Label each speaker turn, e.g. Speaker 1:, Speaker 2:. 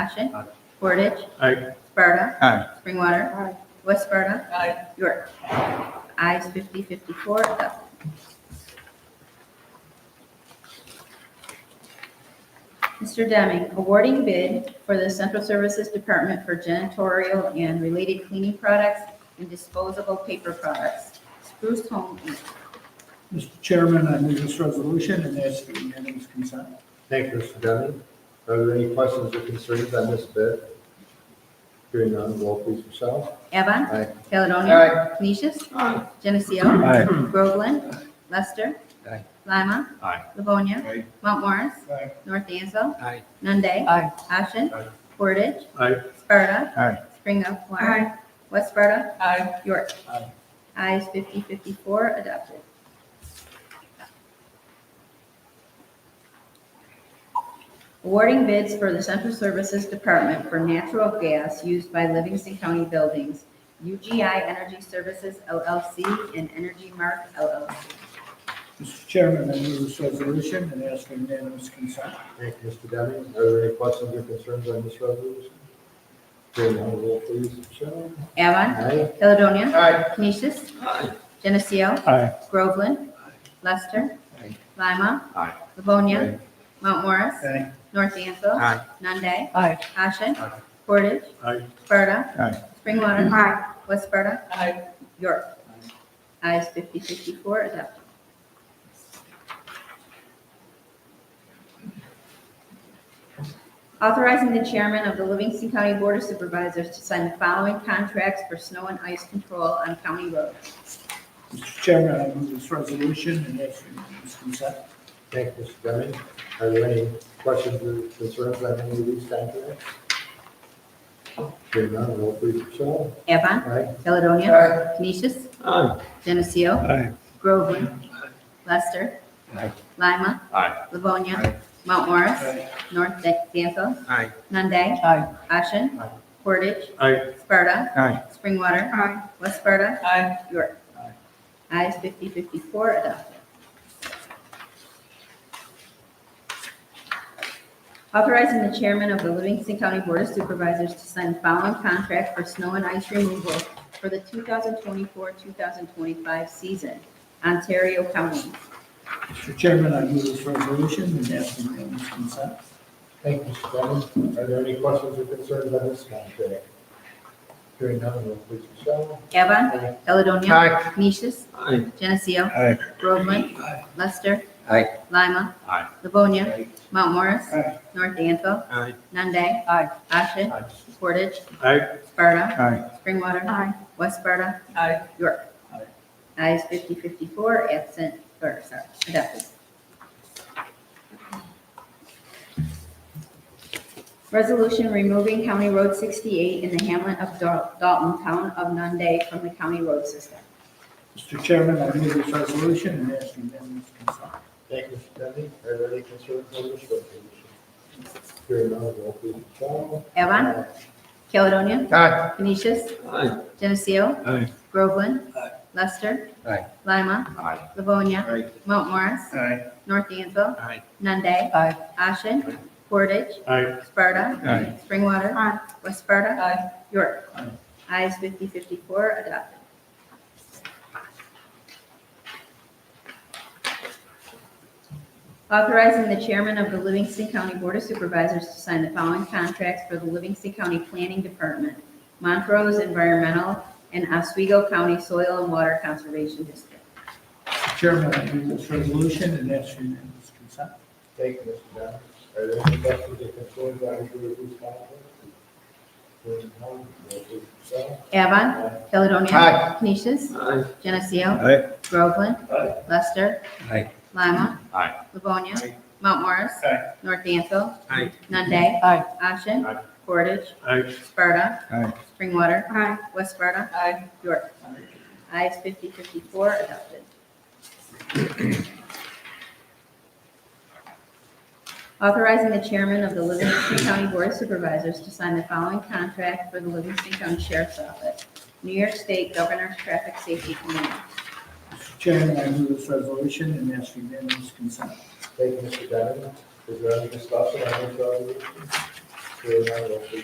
Speaker 1: Ashen.
Speaker 2: Aye.
Speaker 1: Portage.
Speaker 2: Aye.
Speaker 1: Sparta.
Speaker 2: Aye.
Speaker 1: Springwater. West Sparta.
Speaker 3: Aye.
Speaker 1: York. Ayes 50, 54, adopted. Mr. Deming, awarding bid for the Central Services Department for janitorial and related cleaning products and disposable paper products. Spruce Home Inc.
Speaker 4: Mr. Chairman, I move this resolution and ask for unanimous consent.
Speaker 2: Thank you, Mr. Deming. Are there any questions or concerns on this bid? Hearing none, roll please, Michelle.
Speaker 1: Avon.
Speaker 2: Aye.
Speaker 1: Caledonia. Canisius. Geneseo.
Speaker 2: Aye.
Speaker 1: Groveland. Lester.
Speaker 2: Aye.
Speaker 1: Lima.
Speaker 2: Aye.
Speaker 1: Livonia.
Speaker 2: Aye.
Speaker 1: Mount Morris.
Speaker 4: Aye.
Speaker 1: North Dansville.
Speaker 2: Aye.
Speaker 1: Nunde.
Speaker 3: Aye.
Speaker 1: Ashen.
Speaker 2: Aye.
Speaker 1: Portage.
Speaker 2: Aye.
Speaker 1: Sparta.
Speaker 2: Aye.
Speaker 1: Springwater. West Sparta.
Speaker 3: Aye.
Speaker 1: York.
Speaker 4: Aye.
Speaker 1: Ayes 54 adopted. Awarding bids for the Central Services Department for natural gas used by Livingston County buildings, UGI Energy Services LLC and Energy Mark LLC.
Speaker 4: Mr. Chairman, I move this resolution and ask for unanimous consent.
Speaker 2: Thank you, Mr. Deming. Are there any questions or concerns on this resolution? Hearing none, roll please, Michelle.
Speaker 1: Avon.
Speaker 2: Aye.
Speaker 1: Caledonia.
Speaker 2: Aye.
Speaker 1: Canisius. Geneseo.
Speaker 2: Aye.
Speaker 1: Groveland. Lester.
Speaker 2: Aye.
Speaker 1: Lima.
Speaker 2: Aye.
Speaker 1: Livonia. Mount Morris.
Speaker 4: Aye.
Speaker 1: North Dansville.
Speaker 2: Aye.
Speaker 1: Nunde.
Speaker 3: Aye.
Speaker 1: Ashen.
Speaker 2: Aye.
Speaker 1: Portage.
Speaker 2: Aye.
Speaker 1: Sparta.
Speaker 2: Aye.
Speaker 1: Springwater. West Sparta.
Speaker 3: Aye.
Speaker 1: York. Ayes 54 adopted. Authorizing the chairman of the Livingston County Board of Supervisors to sign the following contracts for snow and ice control on county roads.
Speaker 4: Mr. Chairman, I move this resolution and ask for unanimous consent.
Speaker 2: Thank you, Mr. Deming. Are there any questions or concerns on any of these contracts? Hearing none, roll please, Michelle.
Speaker 1: Avon.
Speaker 2: Aye.
Speaker 1: Caledonia.
Speaker 2: Aye.
Speaker 1: Canisius.
Speaker 2: Aye.
Speaker 1: Geneseo.
Speaker 2: Aye.
Speaker 1: Groveland. Lester.
Speaker 2: Aye.
Speaker 1: Lima.
Speaker 2: Aye.
Speaker 1: Livonia.
Speaker 2: Aye.
Speaker 1: Mount Morris.
Speaker 4: Aye.
Speaker 1: North Danville.
Speaker 2: Aye.
Speaker 1: Nunde.
Speaker 3: Aye.
Speaker 1: Ashen.
Speaker 2: Aye.
Speaker 1: Portage.
Speaker 2: Aye.
Speaker 1: Sparta.
Speaker 2: Aye.
Speaker 1: Springwater. West Sparta.
Speaker 3: Aye.
Speaker 1: York. Ayes 5054 adopted. Authorizing the chairman of the Livingston County Board of Supervisors to sign the following contract for snow and ice removal for the 2024-2025 season, Ontario County.
Speaker 4: Mr. Chairman, I move this resolution and ask for unanimous consent.
Speaker 2: Thank you, Mr. Deming. Are there any questions or concerns on this contract? Hearing none, roll please, Michelle.
Speaker 1: Avon.
Speaker 2: Aye.
Speaker 1: Caledonia.
Speaker 2: Aye.
Speaker 1: Canisius.
Speaker 2: Aye.
Speaker 1: Geneseo.
Speaker 2: Aye.
Speaker 1: Groveland. Lester.
Speaker 2: Aye.
Speaker 1: Lima.
Speaker 2: Aye.
Speaker 1: Livonia.
Speaker 2: Aye.
Speaker 1: Mount Morris.
Speaker 4: Aye.
Speaker 1: North Danville.
Speaker 2: Aye.
Speaker 1: Nunde.
Speaker 3: Aye.
Speaker 1: Ashen.
Speaker 2: Aye.
Speaker 1: Portage.
Speaker 2: Aye.
Speaker 1: Sparta.
Speaker 2: Aye.
Speaker 1: Springwater. West Sparta.
Speaker 3: Aye.
Speaker 1: York.
Speaker 4: Aye.
Speaker 1: Ayes 5054, absent, or sorry, adopted. Resolution removing County Road 68 in the hamlet of Dal- Dalton, town of Nunde, from the county road system.
Speaker 4: Mr. Chairman, I move this resolution and ask for unanimous consent.
Speaker 2: Thank you, Mr. Deming. Are there any concerns on this resolution? Hearing none, roll please, Michelle.
Speaker 1: Evan.
Speaker 2: Uh,
Speaker 1: Caledonia.
Speaker 2: Aye.
Speaker 1: Canisius.
Speaker 2: Aye.
Speaker 1: Geneseo.
Speaker 2: Aye.
Speaker 1: Groveland.
Speaker 4: Aye.
Speaker 1: Lester.
Speaker 2: Aye.
Speaker 1: Lima.
Speaker 2: Aye.
Speaker 1: Livonia.
Speaker 2: Aye.
Speaker 1: Mount Morris.
Speaker 4: Aye.
Speaker 1: North Dansville.
Speaker 2: Aye.
Speaker 1: Nunde.
Speaker 3: Aye.
Speaker 1: Ashen. Portage.
Speaker 2: Aye.
Speaker 1: Sparta.
Speaker 2: Aye.
Speaker 1: Springwater. West Sparta.
Speaker 3: Aye.
Speaker 1: York.
Speaker 4: Aye.
Speaker 1: Ayes 5054 adopted. Authorizing the chairman of the Livingston County Board of Supervisors to sign the following contracts for the Livingston County Planning Department, Montrose Environmental, and Oswego County Soil and Water Conservation District.
Speaker 4: Mr. Chairman, I move this resolution and ask for unanimous consent.
Speaker 2: Thank you, Mr. Deming. Are there any questions or concerns on either of these contracts? Hearing none, roll please, Michelle.
Speaker 1: Avon.
Speaker 2: Aye.
Speaker 1: Caledonia.
Speaker 2: Aye.
Speaker 1: Canisius.
Speaker 2: Aye.
Speaker 1: Geneseo.
Speaker 2: Aye.
Speaker 1: Groveland.
Speaker 4: Aye.
Speaker 1: Lester.
Speaker 2: Aye.
Speaker 1: Lima.
Speaker 2: Aye.
Speaker 1: Livonia.
Speaker 2: Aye.
Speaker 1: Mount Morris.
Speaker 4: Aye.
Speaker 1: North Dansville.
Speaker 2: Aye.
Speaker 1: Nunde.
Speaker 3: Aye.
Speaker 1: Ashen.
Speaker 2: Aye.
Speaker 1: Portage.
Speaker 2: Aye.
Speaker 1: Sparta.
Speaker 2: Aye.
Speaker 1: Springwater. West Sparta.
Speaker 3: Aye.
Speaker 1: York. Ayes 5054 adopted. Authorizing the chairman of the Livingston County Board of Supervisors to sign the following contract for the Livingston County Sheriff's Office, New York State Governor's Traffic Safety Committee.
Speaker 4: Mr. Chairman, I move this resolution and ask for unanimous consent.
Speaker 2: Thank you, Mr. Deming. Is there any discussion on this resolution? Hearing none, roll please.